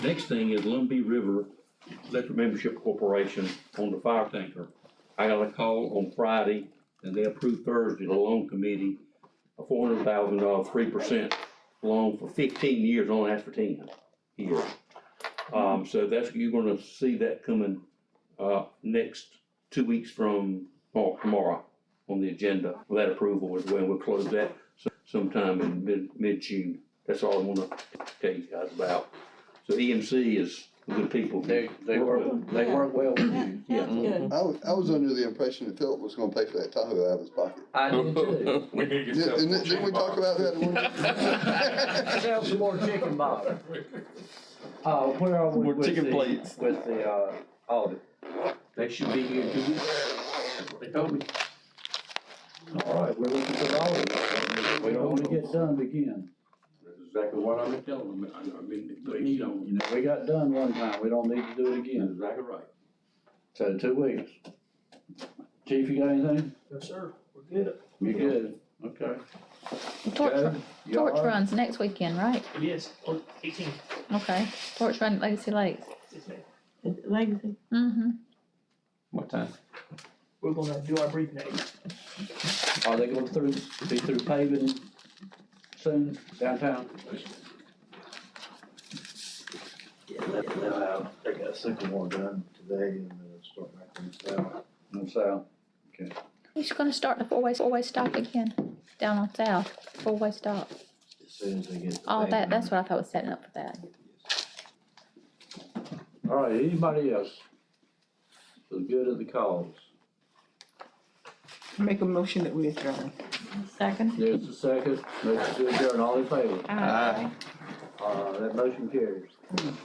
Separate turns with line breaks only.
Next thing is Lumbee River Electric Membership Corporation on the fire tanker. I got a call on Friday, and they approved Thursday, the loan committee, a four hundred thousand dollar, three percent loan for fifteen years, only asked for ten years. Um, so that's, you're gonna see that coming, uh, next two weeks from, or tomorrow on the agenda for that approval as well. We'll close that so- sometime in mid, mid-June. That's all I wanna tell you guys about. So EMC is good people.
They, they work, they work well with you.
Yeah.
Sounds good.
I was, I was under the impression that Philip was gonna pay for that Tahoe out of his pocket.
I do too.
We need to get
Didn't,
some.
didn't- didn't we talk about that? in one-
Sell some more chicken bob. Uh, where are we
More
with
chicken
the,
plates.
with the, uh, audit? They should be here two weeks. They told me.
All right, we're looking for the audit. We don't wanna get done again.
That's exactly what I've been telling them, I know, I've been, they don't,
You know, we got done one time, we don't need to do it
that's
again.
exactly right.
So two weeks. Chief, you got anything?
Yes, sir, we're good.
You good? Okay.
The Torch,
Joe,
run-
you all
torch
right?
runs next weekend, right?
Yes, eighteen.
Okay, torch run at Legacy Lakes.
Is it Legacy,
Mm-hmm.
What time?
we're gonna do our brief next.
Are they going through, be through paving soon downtown?
They got sycamore done today and then start back on the
And so,
He's gonna start the four-way, four-way stop again, down on South, four-way stop.
as soon as they get. the
All
thing
Oh, that, that's what I thought was setting up for that.
all right, anybody else? For the good of the cause.
Make a motion that we adjourn.
Second?
There's a second, motion to adjourn, all in favor? Uh, that motion carries.